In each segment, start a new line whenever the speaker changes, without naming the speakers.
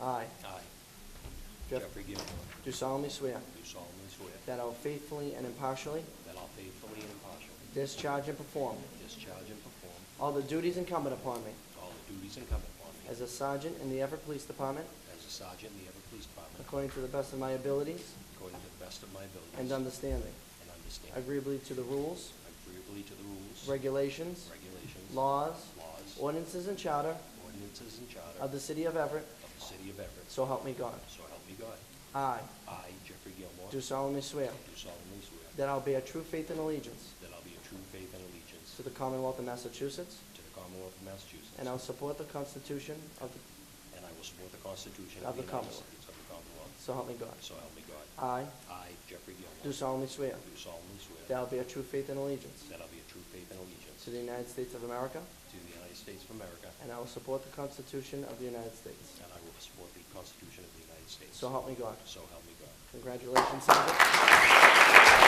I
I,
Jeff-
Jeffrey Gilmore,
do solemnly swear
do solemnly swear
that I will faithfully and impartially
that I'll faithfully and impartially
discharge and perform
discharge and perform
all the duties incumbent upon me
all the duties incumbent upon me
as a sergeant in the Everett Police Department
as a sergeant in the Everett Police Department
according to the best of my abilities
according to the best of my abilities
and understanding,
and understanding,
agreeably to the rules,
agreeably to the rules,
regulations,
regulations,
laws,
laws,
ordinances, and charter
ordinances, and charter
of the city of Everett,
of the city of Everett.
so help me God.
So help me God.
I
I, Jeffrey Gilmore,
do solemnly swear
do solemnly swear
that I'll bear true faith and allegiance
that I'll be a true faith and allegiance
to the Commonwealth of Massachusetts,
to the Commonwealth of Massachusetts.
and I'll support the Constitution of the
and I will support the Constitution
Of
of the
the
United
Commonwealth.
States of the Commonwealth.
So help me God.
So help me God.
I
I, Jeffrey Gilmore.
do solemnly swear
do solemnly swear.
that I will bear true faith and allegiance
that I'll be a true faith and allegiance.
to the United States of America,
to the United States of America.
and I will support the Constitution of the United States.
And I will support the Constitution of the United States.
So help me God.
So help me God.
Congratulations, Sergeant.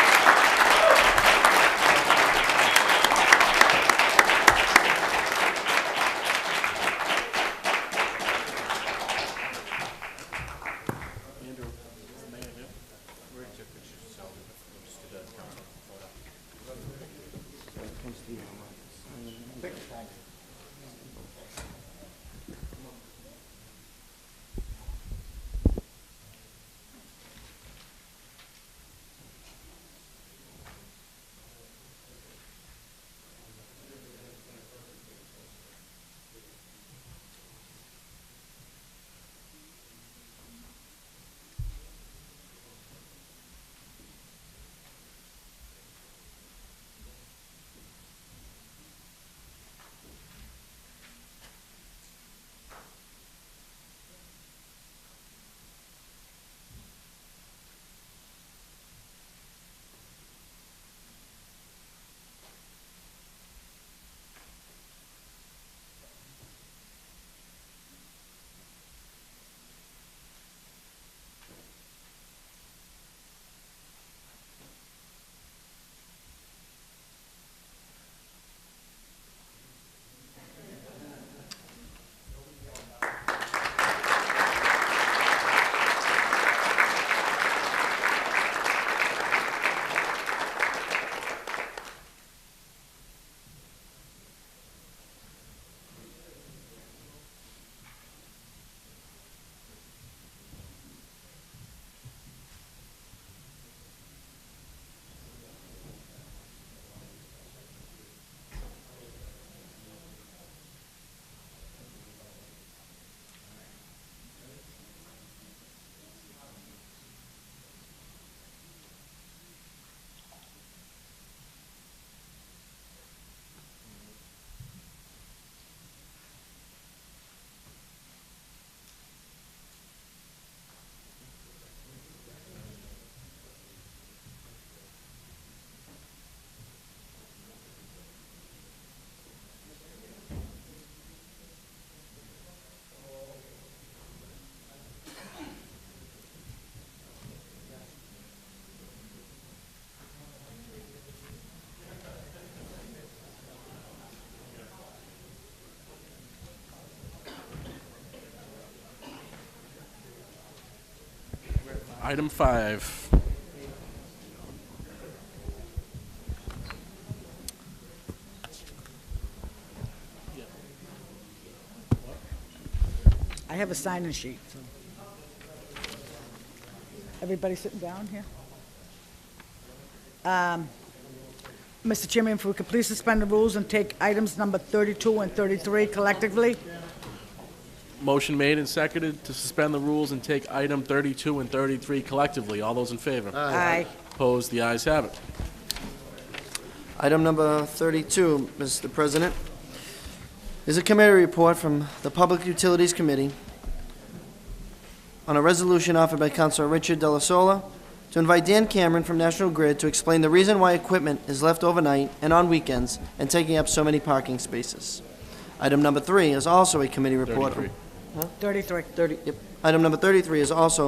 Item five.
I have a sign-in sheet, so. Everybody sitting down here? Um, Mr. Chairman, if we could please suspend the rules and take items number 32 and 33 collectively?
Motion made and seconded to suspend the rules and take item 32 and 33 collectively. All those in favor?
Aye.
Opposed? The ayes have it.
Item number 32, Mr. President, is a committee report from the Public Utilities Committee on a resolution offered by Councilor Richard Delasola to invite Dan Cameron from National Grid to explain the reason why equipment is left overnight and on weekends and taking up so many parking spaces. Item number three is also a committee report.
33.
33.
30, yep. Item number 33 is also